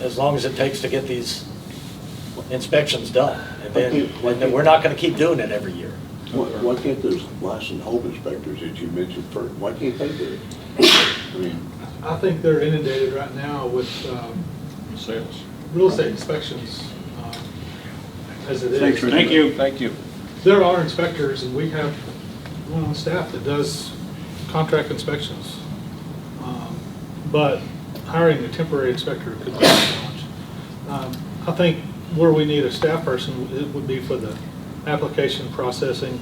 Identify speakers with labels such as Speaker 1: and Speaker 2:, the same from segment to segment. Speaker 1: as long as it takes to get these inspections done. And then,
Speaker 2: Okay.
Speaker 1: and then we're not gonna keep doing it every year.
Speaker 2: Why, why can't those licensed home inspectors that you mentioned first, why can't they do it? I mean,
Speaker 3: I think they're inundated right now with um,
Speaker 4: Sales.
Speaker 3: real estate inspections um, as it
Speaker 2: Thanks,
Speaker 3: is.
Speaker 2: Richard.
Speaker 4: Thank you. Thank you.
Speaker 3: There are inspectors, and we have one on staff that does contract inspections. Um, But hiring a temporary inspector could be a challenge. Um, I think where we need a staff person, it would be for the application processing,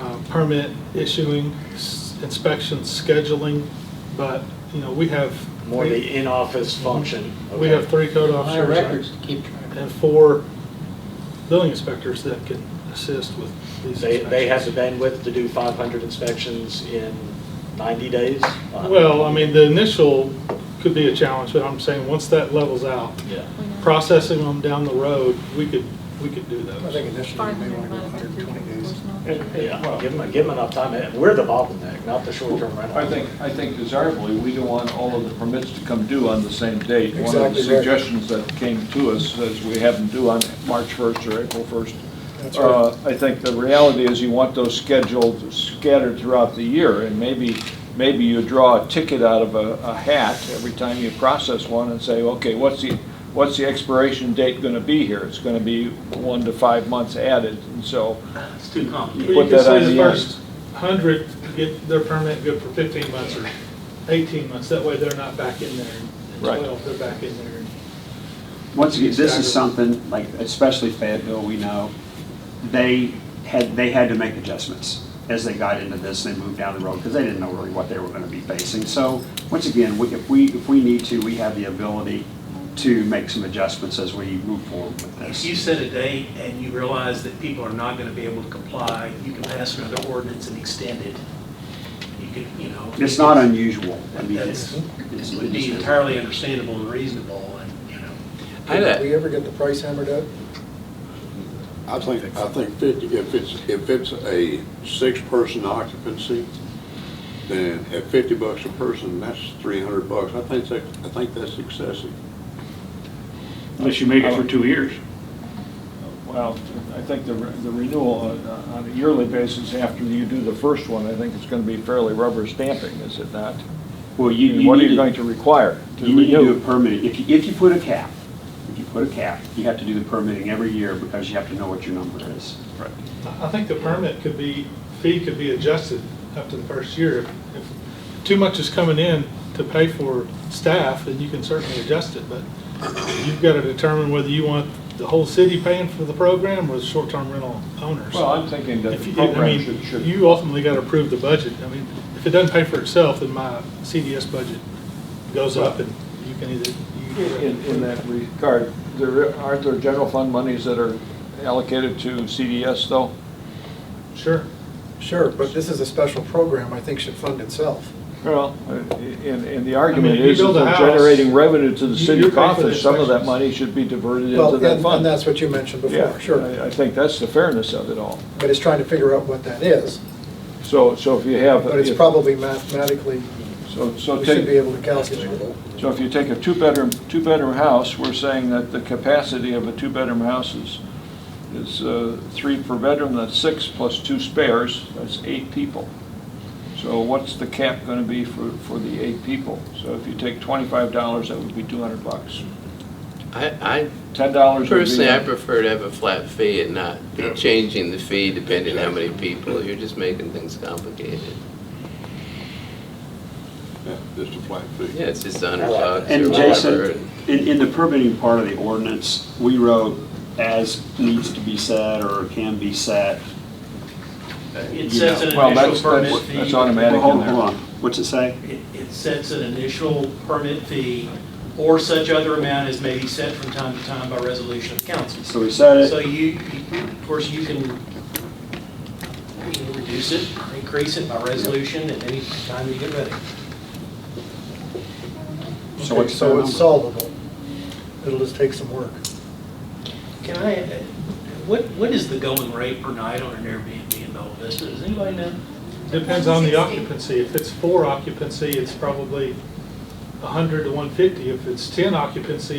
Speaker 3: uh, permit issuing, s- inspection scheduling, but, you know, we have.
Speaker 1: More the in-office function.
Speaker 3: We have three code
Speaker 5: My records
Speaker 3: officers
Speaker 5: to keep track of.
Speaker 3: and four building inspectors that can assist with these
Speaker 1: They,
Speaker 3: inspections.
Speaker 1: they have the bandwidth to do 500 inspections in 90 days? Uh,
Speaker 3: Well, I mean, the initial could be a challenge, but I'm saying, once that levels out,
Speaker 1: Yeah.
Speaker 3: processing them down the road, we could, we could do
Speaker 5: I
Speaker 3: those.
Speaker 5: think initially you may want to go 120 days.
Speaker 1: Yeah, give them, give them enough time. And We're the bottleneck, not the short-term rental.
Speaker 4: I think, I think desirably, we don't want all of the permits to come due on the same date. One of the
Speaker 5: Exactly right.
Speaker 4: suggestions that came to us is we have them due on March 1st or April 1st.
Speaker 5: That's right.
Speaker 4: Uh, I think the reality is you want those scheduled, scattered throughout the year, and maybe, maybe you draw a ticket out of a a hat every time you process one and say, okay, what's the, what's the expiration date going to be here? It's going to be one to five months added, and so
Speaker 6: It's too complicated.
Speaker 3: You
Speaker 4: put
Speaker 3: could
Speaker 4: that on
Speaker 3: say the
Speaker 4: the
Speaker 3: first
Speaker 4: end.
Speaker 3: hundred get their permit good for fifteen months or eighteen months, that way they're not back in there in
Speaker 4: Right.
Speaker 3: twelve, they're back in there. in
Speaker 7: Once again, this is something, like especially Fayetteville, we know, they had, they had to make adjustments as they got into this, they moved down the road, because they didn't know really what they were gonna be facing. So, once again, we- if we, if we need to, we have the ability to make some adjustments as we move forward with
Speaker 6: If you
Speaker 7: this.
Speaker 6: set a date and you realize that people are not gonna be able to comply, you can pass another ordinance and extend it. You could, you know.
Speaker 7: It's not unusual, I mean, it's,
Speaker 6: That's,
Speaker 7: it's.
Speaker 6: it'd be entirely understandable and reasonable and, you know.
Speaker 5: Did we ever get the price hammered out?
Speaker 2: I think, I think fifty, if it's, if it's a six-person occupancy, then at fifty bucks a person, that's three hundred bucks. I think that, I think that's excessive.
Speaker 8: Unless you make it for two years.
Speaker 4: Well, I think the re- the renewal on- on a yearly basis after you do the first one, I think it's going to be fairly rubber stamping, is it not?
Speaker 7: Well, you, you
Speaker 4: What are
Speaker 7: need
Speaker 4: you
Speaker 7: to-
Speaker 4: going to require to
Speaker 7: You need to do a
Speaker 4: renew?
Speaker 7: permitting, if you, if you put a cap, if you put a cap, you have to do the permitting every year because you have to know what your number is.
Speaker 3: I I think the permit could be, fee could be adjusted after the first year. If- If too much is coming in to pay for staff, then you can certainly adjust it, but you've got to determine whether you want the whole city paying for the program or the short-term rental owners.
Speaker 4: Well, I'm thinking that
Speaker 3: If
Speaker 4: the
Speaker 3: you- I
Speaker 4: program
Speaker 3: mean,
Speaker 4: should, should,
Speaker 3: You ultimately got to approve the budget. I mean, if it doesn't pay for itself, then my CDS budget goes up and you can either. you-
Speaker 4: in in that regard, there, aren't there general fund monies that are allocated to CDS, though?
Speaker 3: Sure.
Speaker 5: Sure, but this is a special program, I think should fund itself.
Speaker 4: Well, Uh, and, and the
Speaker 3: I
Speaker 4: argument
Speaker 3: mean, if you
Speaker 4: is that
Speaker 3: build a
Speaker 4: they're
Speaker 3: house,
Speaker 4: generating revenue to the
Speaker 3: you-
Speaker 4: city
Speaker 3: you're paying for the
Speaker 4: coffers, some of that
Speaker 3: inspections.
Speaker 4: money should be diverted into
Speaker 5: Well,
Speaker 4: that
Speaker 5: and,
Speaker 4: fund.
Speaker 5: and that's what you mentioned
Speaker 4: Yeah,
Speaker 5: before, sure.
Speaker 4: I- I think that's the fairness of it all.
Speaker 5: But it's trying to figure out what that is,
Speaker 4: So, so if you have.
Speaker 5: but it's
Speaker 4: if-
Speaker 5: probably mathematically,
Speaker 4: So, so
Speaker 5: we should
Speaker 4: take,
Speaker 5: be able to calculate it.
Speaker 4: so if you take a two-bedroom, two-bedroom house, we're saying that the capacity of a two-bedroom house is, is uh, three per bedroom, that's six plus two spares, that's eight people. So what's the cap gonna be for, for the eight people? So if you take twenty-five dollars, that would be two hundred bucks.
Speaker 9: I,
Speaker 4: Ten
Speaker 9: I
Speaker 4: dollars would be.
Speaker 9: personally, I
Speaker 4: a-
Speaker 9: prefer to have a flat fee and not be changing the fee depending how many people. You're just making things complicated.
Speaker 2: That's just a flat fee.
Speaker 9: Yeah, it's just a hundred bucks or
Speaker 7: And
Speaker 9: whatever.
Speaker 7: Jason, in, in the permitting part of the ordinance, we wrote as needs to be said or can be set.
Speaker 6: It sets an
Speaker 4: Well, that's-
Speaker 6: initial permit
Speaker 4: that's-
Speaker 6: fee.
Speaker 4: that's automatic.
Speaker 7: Well, hold,
Speaker 4: in there.
Speaker 7: hold on, what's it say?
Speaker 6: It, it sets an initial permit fee or such other amount as may be set from time to time by resolution of council.
Speaker 7: So we said
Speaker 6: So
Speaker 7: it,
Speaker 6: you, you- of course, you can, you can reduce it, increase it by resolution at any time you get ready.
Speaker 7: so
Speaker 5: Okay,
Speaker 7: what's the
Speaker 5: So it's
Speaker 7: number?
Speaker 5: solvable. It'll just take some work.
Speaker 6: Can I, what, what is the going rate per night on an Airbnb in Bella Vista? Does anybody know?
Speaker 3: Depends on the occupancy. If it's four occupancy, it's probably 100 to 150. If it's 10 occupancy,